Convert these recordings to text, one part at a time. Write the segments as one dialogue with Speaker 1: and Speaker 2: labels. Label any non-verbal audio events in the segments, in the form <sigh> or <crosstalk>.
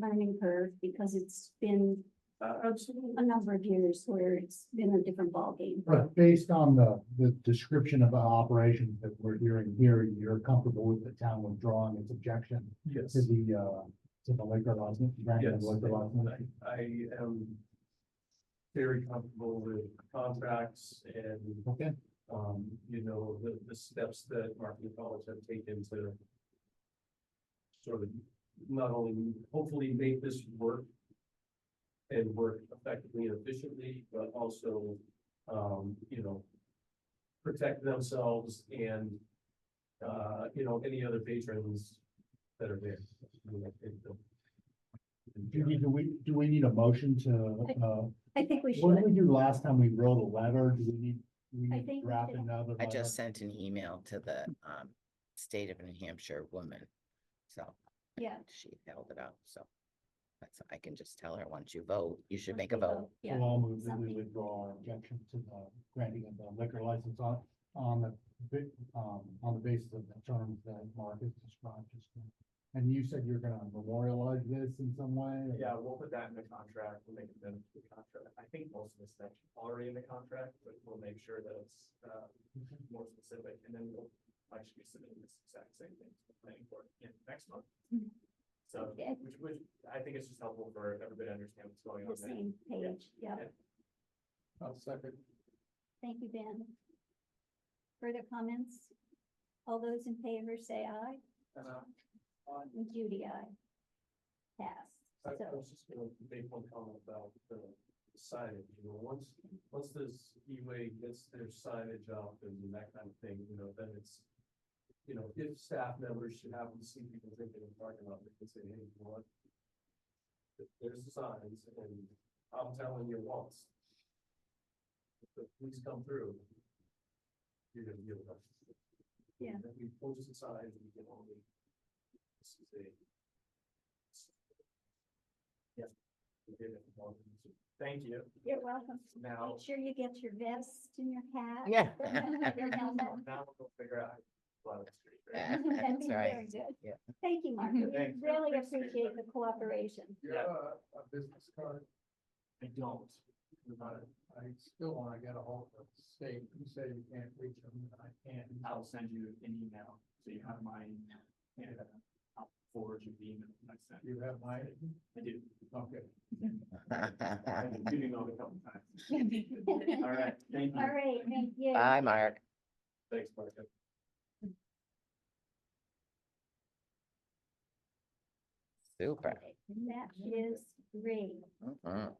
Speaker 1: learning curve because it's been
Speaker 2: Absolutely.
Speaker 1: a number of years where it's been a different ballgame.
Speaker 3: But based on the, the description of operations that we're hearing here, you're comfortable with the town withdrawing its objection
Speaker 2: Yes.
Speaker 3: to the, uh, to the liquor license? granting of
Speaker 2: Yes,
Speaker 3: liquor license?
Speaker 2: I, I am very comfortable with contracts and,
Speaker 3: Okay,
Speaker 2: um, you know, the, the steps that marketing college have taken to sort of not only hopefully make this work and work effectively and efficiently, but also, um, you know, protect themselves and, uh, you know, any other patrons that are there. I mean, I think the-
Speaker 3: do we, do we, do we need a motion to, uh,
Speaker 1: I think we
Speaker 3: what did
Speaker 1: should.
Speaker 3: we do last time we wrote a letter? Do we need, we
Speaker 1: I
Speaker 3: need to
Speaker 1: think we
Speaker 3: draft
Speaker 1: did.
Speaker 3: another?
Speaker 4: I
Speaker 3: letter?
Speaker 4: just sent an email to the um state of New Hampshire woman. So
Speaker 1: Yeah.
Speaker 4: she held it up, so. That's, I can just tell her, once you vote, you should
Speaker 1: Once
Speaker 4: make a
Speaker 1: we <laughs>
Speaker 4: vote.
Speaker 1: Yeah.
Speaker 3: So I'll move that we
Speaker 1: something.
Speaker 3: withdraw our objection to the granting of the liquor license on, on the, ba- um, on the basis of the terms that Mark has described. just now. And you said you're gonna memorialize this in some way? or-
Speaker 2: Yeah, we'll put that in the contract, we'll make it into the contract. I think most of this stuff already in the contract, but we'll make sure that it's, uh, more specific, and then we'll actually be submitting this exact same thing to the planning board in next month.
Speaker 1: Mhm.
Speaker 2: So,
Speaker 1: Okay.
Speaker 2: which, which, I think it's just helpful for everybody to understand what's going
Speaker 1: The
Speaker 2: on there.
Speaker 1: same page. Yeah.
Speaker 2: I'll second.
Speaker 1: Thank you, Ben. Further comments? All those in favor say aye.
Speaker 2: Uh,
Speaker 1: And Judy, aye.
Speaker 2: I,
Speaker 1: Pass.
Speaker 2: I
Speaker 1: So,
Speaker 2: was just gonna make one comment about the signage, you know, once, once this E-way gets their signage up and that kind of thing, you know, then it's. You know, if staff members should happen to see people drinking in the parking lot, they can say, hey, you know what? Th- There's the signs and I'm telling you once. If the police come through. You're gonna deal with us.
Speaker 1: Yeah.
Speaker 2: Then we post the signs and we can only. This is a Thank you.
Speaker 1: you're welcome.
Speaker 2: Now,
Speaker 1: Make sure you get your vest and your hat.
Speaker 4: Yeah.
Speaker 1: <laughs> Your helmet.
Speaker 2: now we'll figure out. how to plot it.
Speaker 1: <laughs>
Speaker 4: Yeah,
Speaker 1: That'd be
Speaker 4: That's
Speaker 1: very
Speaker 4: right.
Speaker 1: good.
Speaker 4: Yeah.
Speaker 1: Thank you, Mark.
Speaker 2: Thanks.
Speaker 1: Really appreciate the cooperation.
Speaker 2: You're a-
Speaker 3: business card.
Speaker 2: I don't.
Speaker 3: I still wanna get a hold of the state. You say you can't reach them, and I can.
Speaker 2: I'll send you an email, so you have my email, and uh, I'll forward you the email that I sent.
Speaker 3: You have my,
Speaker 2: I do.
Speaker 3: okay.
Speaker 2: I've been doing all the couple times.
Speaker 1: <laughs>
Speaker 2: All right, thank
Speaker 1: All
Speaker 2: you.
Speaker 1: right, thank you.
Speaker 4: <laughs> Bye, Mark.
Speaker 2: Thanks, Mark.
Speaker 4: Super.
Speaker 1: Okay, That is great.
Speaker 4: Mhm.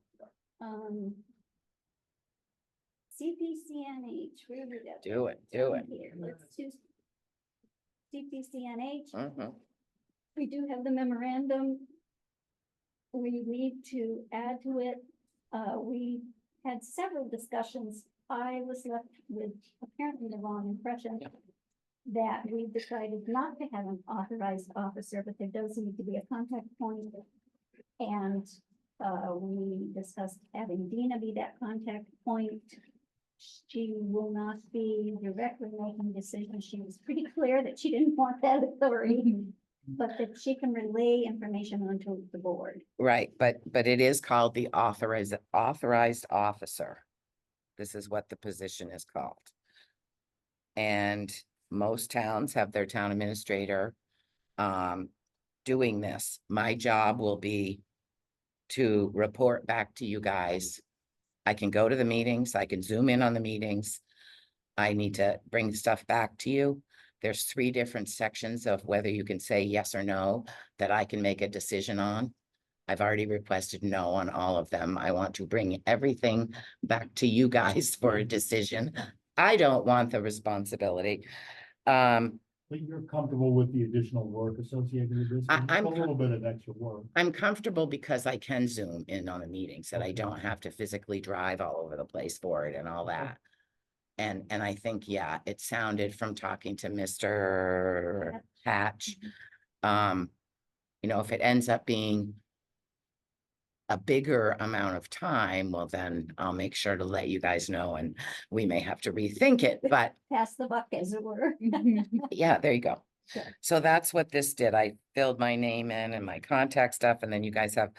Speaker 1: Um. CPCNH, where did that?
Speaker 4: Do it, do it.
Speaker 1: Here, let's do CPCNH.
Speaker 4: Mhm.
Speaker 1: We do have the memorandum. We need to add to it. Uh, we had several discussions. I was left with apparently the wrong impression that we decided not to have an authorized officer, but there does need to be a contact point. And, uh, we discussed having Dina be that contact point. She will not be directly making decisions. She was pretty clear that she didn't want that authority but that she can relay information onto the board.
Speaker 4: Right, but, but it is called the authorized, authorized officer. This is what the position is called. And most towns have their town administrator um, doing this. My job will be to report back to you guys. I can go to the meetings, I can zoom in on the meetings. I need to bring stuff back to you. There's three different sections of whether you can say yes or no that I can make a decision on. I've already requested no on all of them. I want to bring everything back to you guys <laughs> for a decision. I don't want the responsibility. Um,
Speaker 3: But you're comfortable with the additional work associated with this?
Speaker 4: I-
Speaker 3: It's
Speaker 4: I'm
Speaker 3: A little bit of extra work.
Speaker 4: I'm comfortable because I can zoom in on the meetings that I
Speaker 3: Okay.
Speaker 4: don't have to physically drive all over the place for it and all
Speaker 3: Okay.
Speaker 4: that. And, and I think, yeah, it sounded from talking to Mr. Hatch. Um, you know, if it ends up being a bigger amount of time, well, then I'll make sure to let you guys know and we may have to rethink it, but
Speaker 1: Pass the buck, as it were.
Speaker 4: yeah, there you go.
Speaker 1: Sure.
Speaker 4: So that's what this did. I filled my name in and my contact stuff, and then you guys have